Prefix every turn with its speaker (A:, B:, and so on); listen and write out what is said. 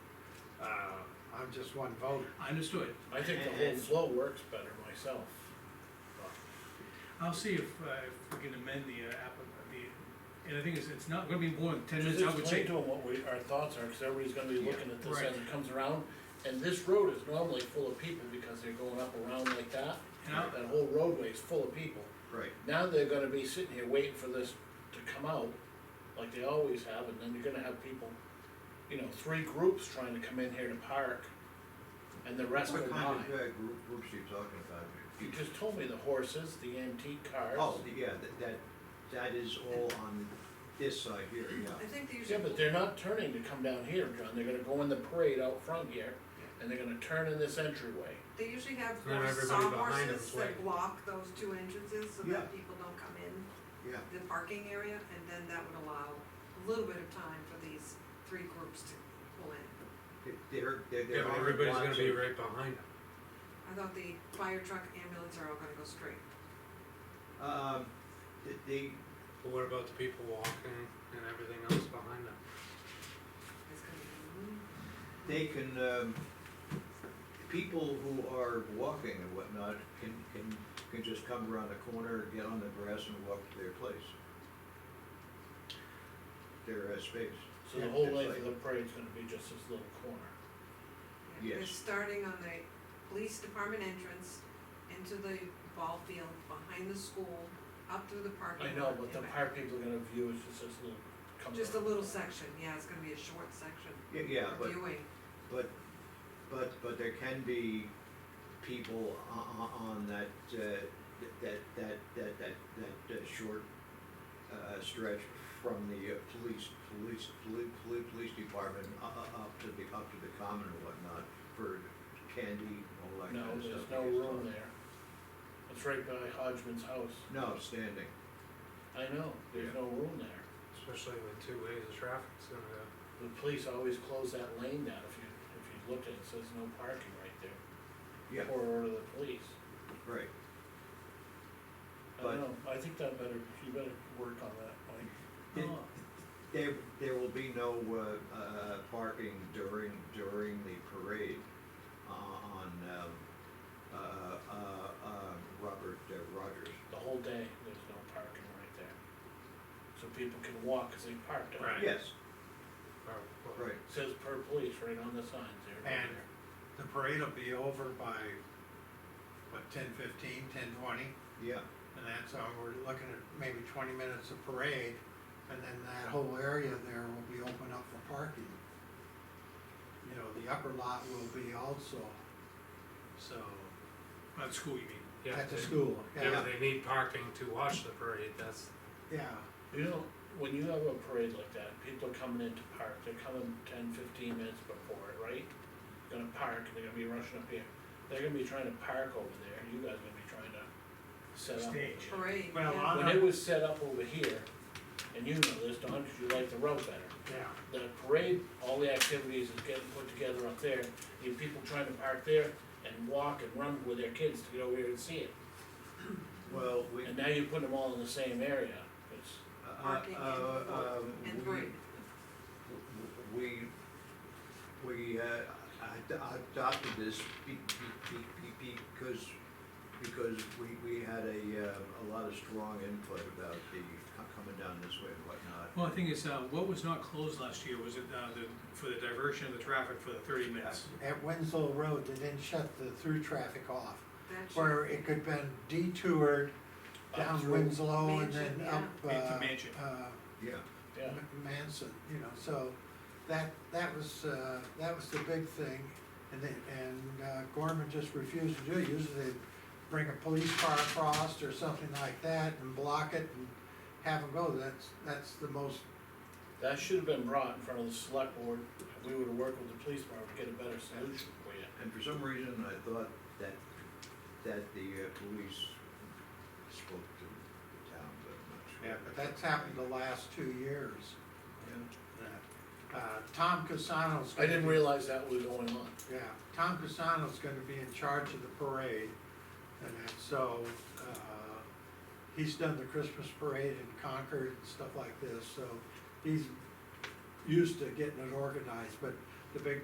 A: Uh,
B: with just one vote.
C: Understood.
D: I think the whole flow works better myself.
C: I'll see if, uh, if we can amend the uh, app, the, and the thing is, it's not gonna be more than ten
D: Just
C: minutes, I would
D: explain
C: say.
D: to them what we, our thoughts are, cause everybody's gonna be looking at this as
C: Right.
D: it comes around. And this road is normally full of people because they're going up around like that.
C: And I-
D: That whole roadway is full of people.
E: Right.
D: Now they're gonna be sitting here waiting for this to come out, like they always have, and then you're gonna have people, you know, three groups trying to come in here to park. And the rest go
E: What kind
D: by.
E: of uh, group, groups are you talking about?
D: You just told me the horses, the antique cars.
E: Oh, yeah, that, that, that is all on this side here,
F: I
E: yeah.
F: think these.
D: Yeah, but they're not turning to come down here, John, they're gonna go in the parade out front here, and they're gonna turn in this entryway.
F: They usually have
B: Then everybody behind
F: sawhorses
B: them's waiting.
F: that block those two entrances so
E: Yeah.
F: that people don't come in
E: Yeah,
F: the parking area, and then that would allow a little bit of time for these three groups to pull in.
E: They- they're, they're,
B: Yeah,
E: they're.
B: but
E: on
B: everybody's
E: lots
B: gonna be
E: of-
B: right behind them.
F: I thought the fire truck ambulance are all gonna go straight.
E: Um, th- they,
B: But what about the people walking and everything else behind them?
F: It's gonna be, mm,
E: they can, um, people who are walking and whatnot can, can, can just come around the corner, get on the grass and walk to their place. Their uh, space.
D: So the
E: Yeah,
D: whole
E: just
D: length
E: like-
D: of the parade's gonna be just this little corner.
F: yeah, They're
E: Yes.
F: starting on the police department entrance into the ball field, behind the school, up through the parking lot.
D: I know, but
F: and
D: the
F: back.
D: park people are gonna view is just this little. comes
F: Just a
D: around.
F: little section, yeah, it's gonna be a short section.
E: Yeah, Yeah,
F: for
E: but
F: Viewing.
E: But, but, but there can be people on, on that, uh, that, that, that, that, that uh, short, uh, stretch from the uh, police, police, police, police, police department, uh, uh, up to the, up to the common and whatnot, for candy and all that
D: No,
E: kind of stuff.
D: there's no room there. It's right by Hodgman's house.
E: No, standing,
D: I know, there's
E: Yeah.
D: no room there.
B: Especially with two ways of traffic, it's gonna go.
D: The police always close that lane down if you, if you look at it, it says no parking right there.
E: yeah,
D: Or order the police.
E: right,
D: I
E: But-
D: don't know, I think that better, you better work on that, Mike.
E: Did- there, there will be no, uh, uh, parking during, during the parade uh, on, um, uh, uh, uh, Robert uh, Rogers.
D: The whole day, there's no parking right there. So people can walk, cause they parked on
B: Right.
D: it.
E: Yes,
B: Or, well,
E: right,
D: Says per police right on the signs there.
A: And the parade will be over by, what, ten fifteen, ten twenty?
E: yeah,
A: And that's, uh, we're looking at maybe twenty minutes of parade, and then that whole area there will be open up for parking. You know, the upper lot will be also, so,
C: By the school, you mean?
B: Yeah,
A: at the
B: they-
A: school,
B: Yeah,
A: yeah,
B: they need parking to watch the parade, that's,
A: yeah.
D: You know, when you have a parade like that, people are coming in to park, they're coming ten, fifteen minutes before it, right? Gonna park, and they're gonna be rushing up here, they're gonna be trying to park over there, and you guys are gonna be trying to set up. over
C: Stage.
D: there.
F: Parade,
A: Well,
F: yeah.
A: I'm-
D: When it was set up over here, and you know this, Don, 'cause you like the road better,
A: Yeah.
D: the parade, all the activities is getting put together up there, you have people trying to park there and walk and run with their kids to get over here and see it.
E: well, we,
D: And now you're putting them all in the same area, it's,
E: uh,
F: Parking and
E: uh,
F: vote
E: um,
F: and
E: we-
F: parade.
E: We, we, uh, ad- adopted this be, be, be, be, because, because we, we had a, uh, a lot of strong input about the co- coming down this way and whatnot.
C: Well, the thing is, uh, what was not closed last year was it, uh, the, for the diversion of the traffic for the thirty minutes?
A: At Winslow Road, they didn't shut the through traffic off,
F: That should
A: where it could been detoured down
D: through
A: Winslow and
F: Mansion,
A: then
F: yeah.
A: up, uh,
C: Into Mansion.
A: uh,
E: Yeah,
D: yeah.
A: M- Manson, you know, so that, that was, uh, that was the big thing. And then, and uh, Gorman just refused to do it, usually they'd bring a police car across or something like that and block it and have them go, that's, that's the most,
D: That should have been brought in front of the select board, and we would have worked with the police department to get a better solution for you.
E: and for some reason, I thought that, that the uh, police spoke to the town, but I'm not sure.
A: yeah, but that's happened the last two years. that. Uh, Tom Casano's.
D: I didn't realize that was going on.
A: Yeah, Tom Casano's gonna be in charge of the parade, and that- so, uh, he's done the Christmas parade in Concord and stuff like this, so he's used to getting it organized, but the big